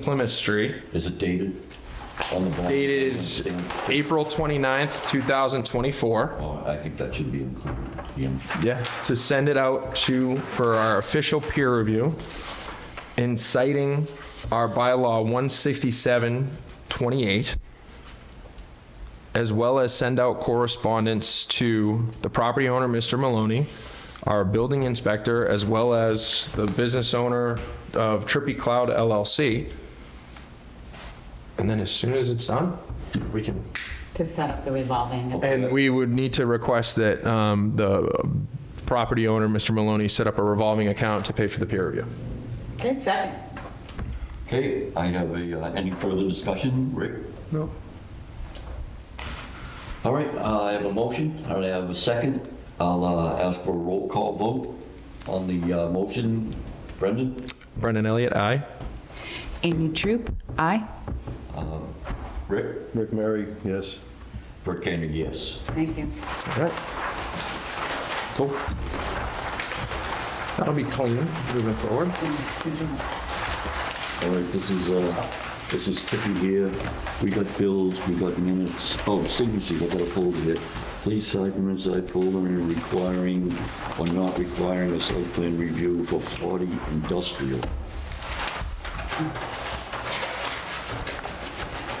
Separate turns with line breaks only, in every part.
Plymouth Street
Is it dated on the bond?
dated April 29th, 2024.
Oh, I think that should be included. Yeah.
Yeah. To send it out to, for our official peer review, and citing our bylaw 16728, as well as send out correspondence to the property owner, Mr. Maloney, our building inspector, as well as the business owner of Trippy Cloud LLC. And then as soon as it's done, we can
to set up the revolving.
And we would need to request that um, the property owner, Mr. Maloney, set up a revolving account to pay for the peer review.
Okay, second.
Okay, I have a, uh, any further discussion, Rick?
No.
All right, uh, I have a motion, I have a second. I'll uh, ask for a roll call vote on the uh, motion. Brendan?
Brendan Elliott, aye.
Amy Troop, aye.
Rick?
McMary, yes.
Rick Kanger, yes.
Thank you.
All right. Cool. That'll be clean moving forward.
All right, this is, uh, this is tricky here. We got bills, we got minutes, oh, signatures, I got a folder here. Please site and side folder and requiring or not requiring a site plan review for 40 industrial.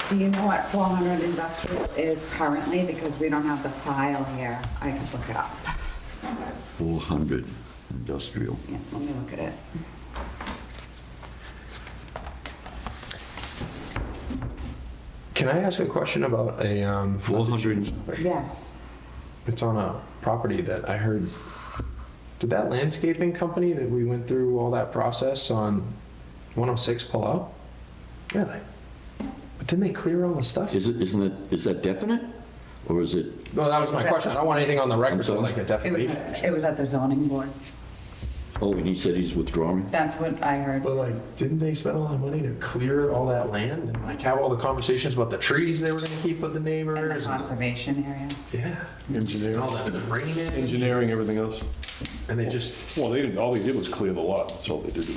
Do you know what 400 industrial is currently? Because we don't have the file here. I can look it up.
400 industrial.
Yeah, let me look at it.
Can I ask a question about a, um,
400,
Yes.
it's on a property that I heard, did that landscaping company that we went through all that process on 106 pull out? Really? But didn't they clear all the stuff?
is it, isn't it, is that definite? Or is it,
No, that was my question. I don't want anything on the record for like a
It was,
defamation.
at- it was at the zoning board.
oh, and he said he's withdrawing?
That's what I heard.
But like, didn't they spend a lot of money to clear all that land and like have all the conversations about the trees they were gonna keep with the
In the
neighbors? and-
conservation area.
Yeah, and
Engineering,
all that drainage,
engineering, everything else.
and they just,
Well, they didn't, all they did was clear the lot, that's all they did.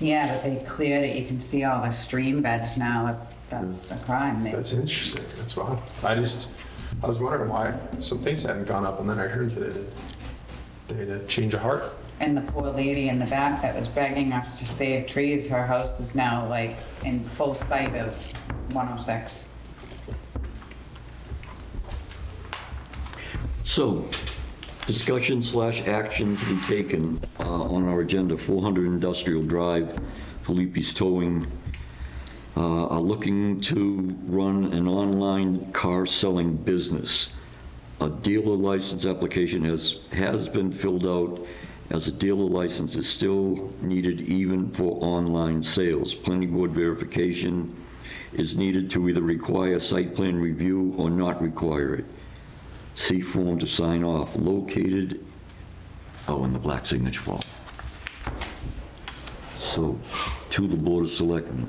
Yeah, but they cleared it. You can see all the stream beds now. That's a crime. They-
that's interesting, that's wild. I just, I was wondering why some things hadn't gone up and then I heard that it, they had a change of heart.
And the poor lady in the back that was begging us to save trees, her house is now like in full sight of 106.
So, discussion slash action to be taken uh, on our agenda, 400 Industrial Drive, Felipe's Towing, uh, are looking to run an online car selling business. A dealer license application has, has been filled out, as a dealer license is still needed even for online sales. Planning board verification is needed to either require site plan review or not require it. C form to sign off, located, oh, in the black signature form. So, to the Board of Selectmen,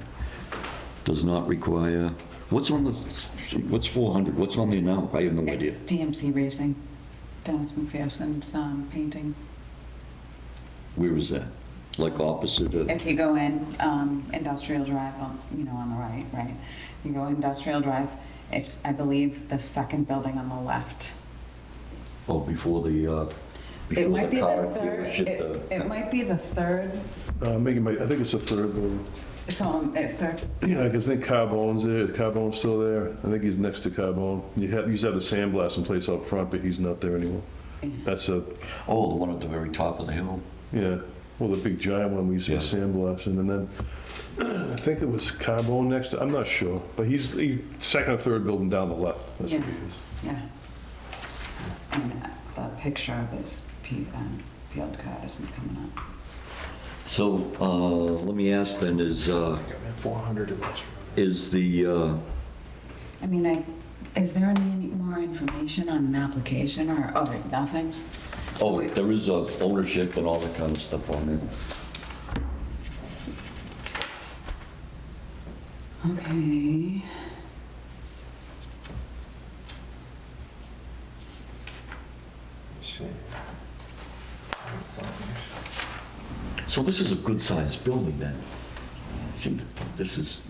does not require, what's on the, what's 400, what's on the amount? I have no idea.
It's DMC Racing, Dennis McPherson's um, painting.
Where is that? Like opposite of,
If you go in um, Industrial Drive, on- you know, on the right, right? You go Industrial Drive, it's, I believe, the second building on the left.
oh, before the, uh,
It
before
might
the
be
car
the third,
dealership.
it
uh,
it might be the third,
Uh, Megan, might- I think it's the third one.
so, um, it's third,
Yeah, because I think Carbone's there, is Carbone still there? I think he's next to Carbone. You have, you used to have the sandblasting place out front, but he's not there anymore. That's a,
Oh, the one at the very top of the hill.
yeah, well, the big giant one, we used to have
Yeah.
sandblasting, and then, I think it was Carbone next, to- I'm not sure, but he's, he's second or third building down the left. That's what he
Yeah.
is.
yeah. And uh, the picture of this pe- um, field card isn't coming up.
So, uh, let me ask then, is, uh,
Four hundred industrial.
is the, uh,
I mean, I, is there any more information on an application or, oh, wait, nothing?
oh, there is uh, ownership and all that kind of stuff on there.
Okay.
So this is a good-sized building then? See, This is,